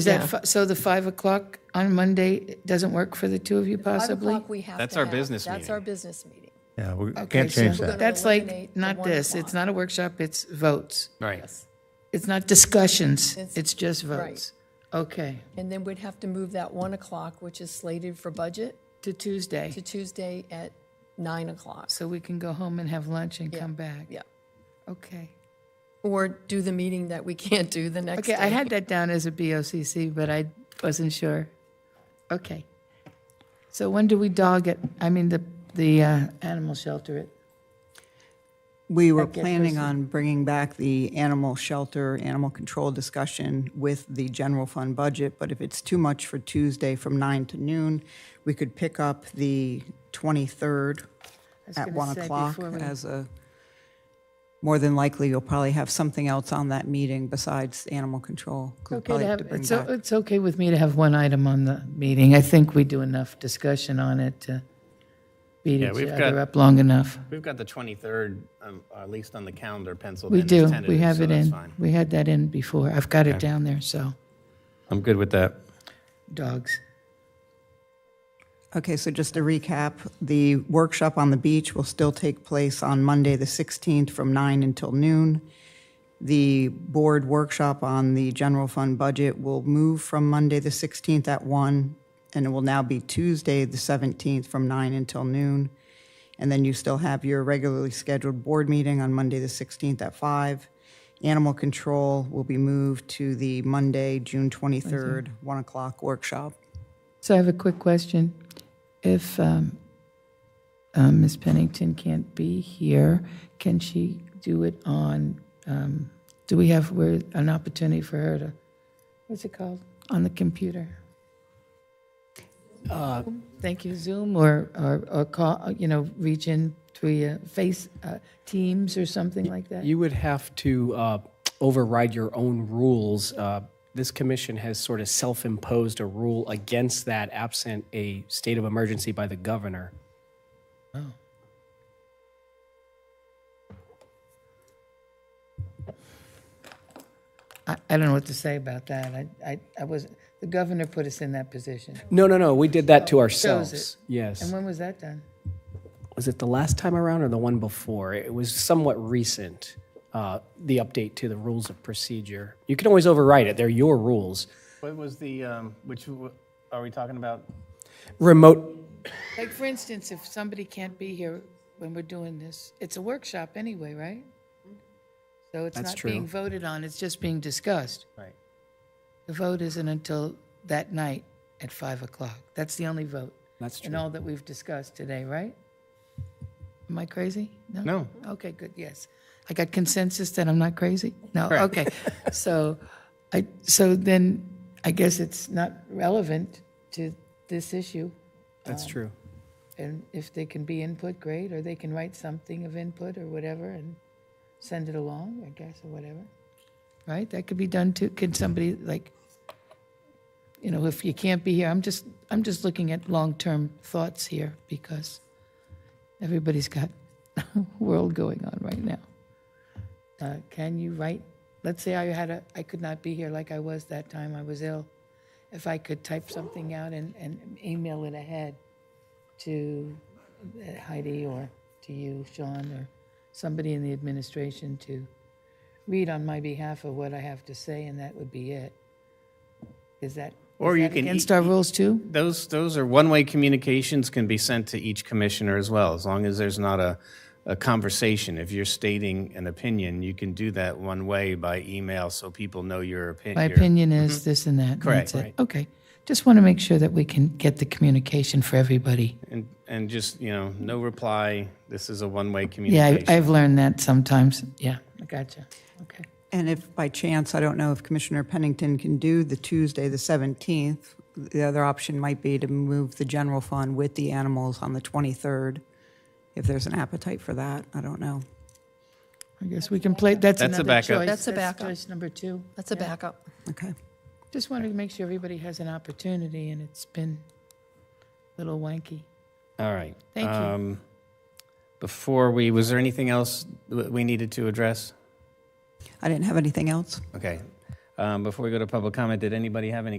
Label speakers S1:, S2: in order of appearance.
S1: Is that, fi- so the 5 o'clock on Monday doesn't work for the two of you possibly?
S2: o'clock we have
S3: That's
S2: to
S3: our
S2: have-
S3: business
S2: That's our
S3: meeting.
S2: business meeting.
S4: Yeah, we
S1: Okay,
S4: can't
S1: so
S4: change
S2: We're
S4: that.
S2: gonna-
S1: That's like,
S2: eliminate the
S1: not
S2: one
S1: this,
S2: o'clock.
S1: it's not a workshop, it's votes.
S3: Right.
S1: It's not discussions, it's just
S2: right.
S1: votes. Okay,
S2: And then we'd have to move that 1 o'clock, which is slated for budget,
S1: to Tuesday,
S2: to Tuesday at 9 o'clock.
S1: so we can go home and have lunch and come back.
S2: Yeah.
S1: Okay.
S2: Or do the meeting that we can't do the next day.
S1: Okay, I had that down as a BOCC, but I wasn't sure. Okay. So when do we dog it, I mean, the, the uh, animal shelter it?
S5: We were planning on bringing back the animal shelter, animal control discussion with the general fund budget, but if it's too much for Tuesday from nine to noon, we could pick up the 23rd
S1: was
S5: at
S1: gonna
S5: 1
S1: say
S5: o'clock
S1: before we-
S5: as a, more than likely, you'll probably have something else on that meeting besides animal control. 'cause we'll
S1: Okay,
S5: probably
S1: to have,
S5: have to bring
S1: it's, o-
S5: back-
S1: it's okay with me to have one item on the meeting. I think we do enough discussion on it to beat
S3: Yeah,
S1: each
S3: we've
S1: other
S3: got-
S1: up long enough.
S3: We've got the 23rd, um, at least on the calendar penciled
S1: We
S3: in. as
S1: do, we
S3: tentative,
S1: have
S3: so
S1: it
S3: that's
S1: in.
S3: fine.
S1: We had that in before. I've got it down there, so,
S3: I'm good with that.
S1: dogs.
S5: Okay, so just to recap, the workshop on the beach will still take place on Monday, the 16th, from 9 until noon. The board workshop on the general fund budget will move from Monday, the 16th, at 1, and it will now be Tuesday, the 17th, from 9 until noon. And then you still have your regularly scheduled board meeting on Monday, the 16th, at 5. Animal control will be moved to the Monday, June 23rd, 1 o'clock workshop.
S1: So I have a quick question. If um, uh, Ms. Pennington can't be here, can she do it on, um, do we have, where an opportunity for her to, what's it called, on the computer? Thank you, Zoom or, or or call, you know, reach in to Face, uh, Teams or something like that?
S6: You would have to uh, override your own rules. Uh, This commission has sort of self-imposed a rule against that absent a state of emergency by the governor.
S1: I I don't know what to say about that. I- I I was, the governor put us in that position.
S6: No, no, no, we did that to
S1: Shows
S6: ourselves.
S1: And
S6: Yes.
S1: when was that done?
S6: Was it the last time around or the one before? It was somewhat recent, uh, the update to the rules of procedure. You can always override it, they're your rules.
S3: What was the, um, which, w- are we talking about?
S6: Remote,
S1: Like, for instance, if somebody can't be here when we're doing this, it's a workshop anyway, right? So it's
S6: That's
S1: not being voted on, it's just being discussed.
S3: Right.
S1: The vote isn't until that night at 5 o'clock. That's the only vote.
S6: That's
S1: In
S6: true.
S1: all that we've discussed today, right? Am I crazy? No?
S3: No.
S1: Okay, good, yes. I got consensus that I'm not crazy? No, okay. So I, so then I guess it's not relevant to this issue.
S6: that's true.
S1: And if they can be input, great, or they can write something of input or whatever and send it along, I guess, or whatever. Right? That could be done too. Can somebody like, you know, if you can't be here, I'm just, I'm just looking at long-term thoughts here because everybody's got a world going on right now. Uh, can you write, let's say I had a, I could not be here like I was that time I was ill. If I could type something out and, and email it ahead, to uh, Heidi or to you, Sean, or somebody in the administration to read on my behalf of what I have to say, and that would be it. Is that,
S3: Or
S1: is
S3: you
S1: that
S3: can
S1: against
S3: e-
S1: our rules too?
S3: Those, those are one-way communications can be sent to each commissioner as well, as long as there's not a, a conversation. If you're stating an opinion, you can do that one way by email, so people know your
S1: My
S3: opinion.
S1: opinion is this and that. and
S3: Mm-hmm. Correct.
S1: that's it. Okay. Just want to make sure that we can get the communication for everybody.
S3: And, and just, you know, no reply, this is a one-way
S1: Yeah, I-
S3: communication.
S1: I've learned that sometimes. Yeah, I gotcha. Okay.
S5: And if by chance, I don't know if Commissioner Pennington can do the Tuesday, the 17th, the other option might be to move the general fund with the animals on the 23rd, if there's an appetite for that, I don't know.
S1: I guess we can play, that's
S3: That's a
S1: another
S3: backup.
S1: choice.
S2: That's a backup.
S1: Choice number two.
S2: That's a backup.
S5: Okay.
S1: Just wanted to make sure everybody has an opportunity, and it's been a little wanky.
S3: All right.
S1: Thank you.
S3: Um, Before we, was there anything else that we needed to address?
S5: I didn't have anything else.
S3: Okay. Uh, Um, Before we go to public comment, did anybody have any